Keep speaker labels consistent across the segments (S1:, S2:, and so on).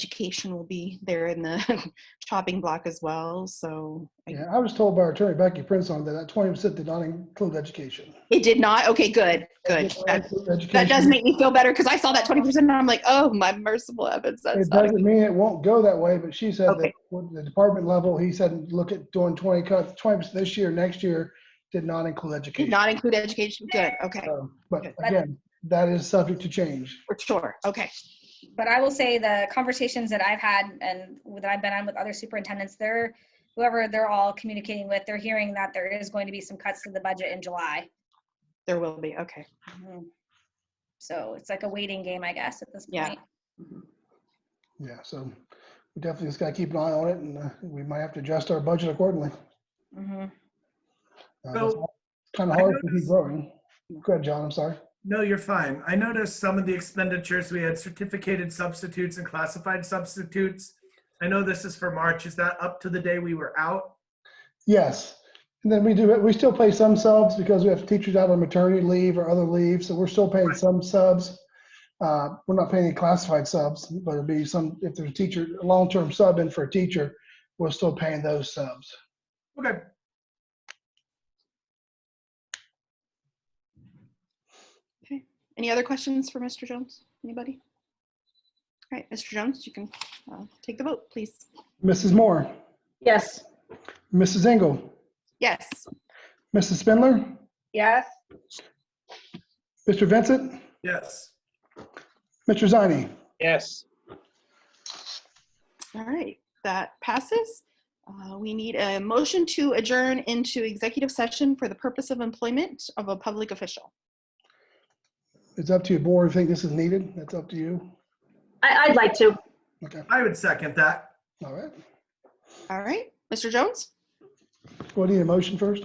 S1: education will be there in the chopping block as well. So I-
S2: Yeah, I was told by our attorney Becky Prince on that that twenty percent did not include education.
S1: it did not. Okay, good, good.
S2: It did not
S1: That,
S2: include
S1: that does
S2: education.
S1: make me feel better because I saw that 20% and I'm like, oh, my merciful heavens. That's
S2: It
S1: not a
S2: doesn't mean it won't go that way, but she said that
S1: Okay.
S2: with the department level, he said, look at doing twenty cuts, twenty percent this year, next year, did not include
S1: Did
S2: education.
S1: not include education. Good. Okay.
S2: So, But
S1: Good.
S2: again, that is subject to change.
S1: For sure. Okay.
S3: but I will say the conversations that I've had and that I've been on with other superintendents, they're whoever they're all communicating with, they're hearing that there is going to be some cuts to the budget in July.
S1: There will be. Okay.
S3: So it's like a waiting game, I guess, at this
S1: Yeah.
S3: point.
S2: Yeah, so we definitely just gotta keep an eye on it and uh, we might have to adjust our budget accordingly.
S3: Mhm.
S4: So-
S2: Kind of
S4: I
S2: hard to keep
S4: noticed-
S2: growing. Go ahead, John, I'm sorry.
S4: No, you're fine. I noticed some of the expenditures, we had certificated substitutes and classified substitutes. I know this is for March. Is that up to the day we were out?
S2: Yes. And then we do, we still pay some subs because we have teachers out on maternity leave or other leave, so we're still paying some subs. Uh, We're not paying any classified subs, but it'll be some, if there's a teacher, a long-term sub in for a teacher, we're still paying those subs.
S4: Okay,
S1: Any other questions for Mr. Jones? Anybody? All right, Mr. Jones, you can uh, take the vote, please.
S2: Mrs. Moore,
S5: Yes.
S2: Mrs. Engel,
S1: Yes.
S2: Mrs. Spindler,
S5: Yes.
S2: Mr. Vincent,
S4: yes.
S2: Mr. Zani.
S6: yes.
S1: All right, that passes. Uh, We need a motion to adjourn into executive session for the purpose of employment of a public official.
S2: It's up to your board. If you think this is needed, that's up to you.
S5: I, I'd like to.
S2: Okay,
S4: I would second that.
S2: all right.
S1: All right, Mr. Jones?
S2: What, do you need a motion first?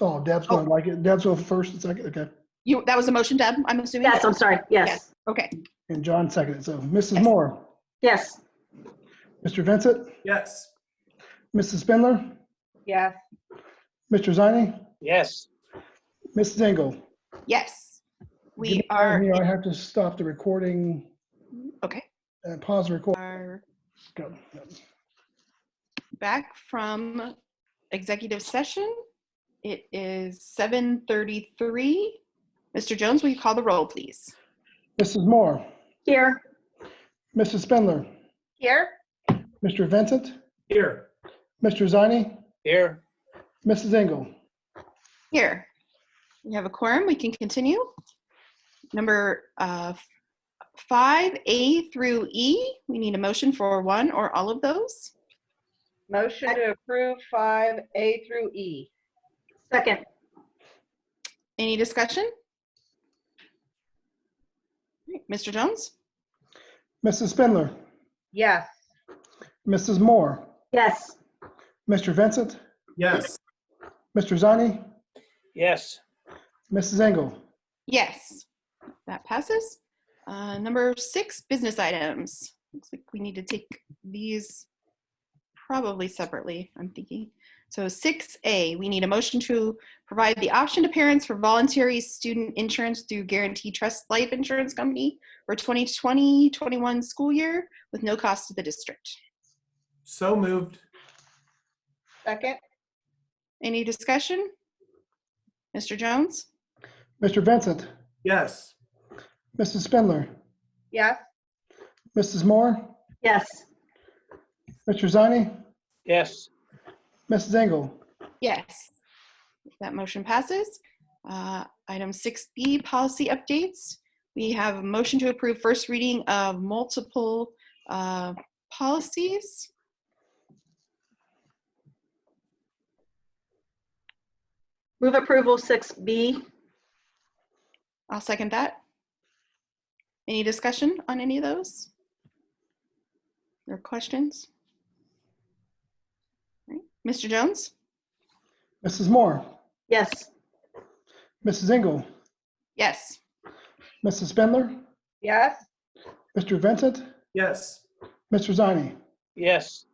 S2: Oh, Deb's going to like it. Deb's going first and second, okay.
S1: You, that was a motion, Deb, I'm assuming?
S5: Yes, I'm sorry. Yes.
S1: Okay,
S2: And John seconded, so Mrs. Moore,
S5: Yes.
S2: Mr. Vincent,
S4: Yes.
S2: Mrs. Spindler,
S5: Yes.
S2: Mr. Zani,
S6: Yes.
S2: Mrs. Engel.
S1: yes.
S2: Give
S1: We
S2: me time
S1: are,
S2: here. I have to stop the recording
S1: okay,
S2: and pause the recording.
S1: are
S2: Go.
S1: back from executive session. It is 7:33. Mr. Jones, will you call the roll, please?
S2: Mrs. Moore,
S5: Here.
S2: Mrs. Spindler,
S5: Here.
S2: Mr. Vincent,
S4: Here.
S2: Mr. Zani,
S6: Here.
S2: Mrs. Engel.
S1: Here, we have a quorum, we can continue. Number uh, 5A through E, we need a motion for one or all of those.
S7: Motion to approve five A through E.
S5: Second.
S1: Any discussion? Mr. Jones?
S2: Mrs. Spindler,
S7: Yes.
S2: Mrs. Moore,
S5: Yes.
S2: Mr. Vincent,
S4: Yes.
S2: Mr. Zani,
S6: Yes.
S2: Mrs. Engel.
S1: Yes, that passes. Uh, Number six, business items. Looks like we need to take these probably separately, I'm thinking. So 6A, we need a motion to provide the option to parents for voluntary student insurance through Guarantee Trust Life Insurance Company for 2020-21 school year with no cost to the district.
S4: So moved.
S7: Second?
S1: Any discussion? Mr. Jones?
S2: Mr. Vincent,
S4: Yes.
S2: Mrs. Spindler,
S7: Yes.
S2: Mrs. Moore,
S5: Yes.
S2: Mr. Zani,
S6: Yes.
S2: Mrs. Engel.
S1: Yes. That motion passes. Uh, Item 6B, policy updates. We have a motion to approve first reading of multiple uh, policies.
S5: Move approval 6B.
S1: I'll second that. Any discussion on any of those? Or questions? Right. Mr. Jones?
S2: Mrs. Moore,
S5: Yes.
S2: Mrs. Engel,
S1: Yes.
S2: Mrs. Spindler,
S7: Yes.
S2: Mr. Vincent,
S4: Yes.
S2: Mr. Zani,
S6: Yes.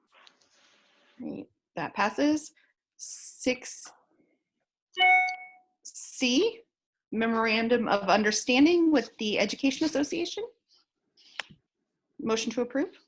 S1: Right, That passes. Six C, memorandum of understanding with the Education Association. Motion to approve.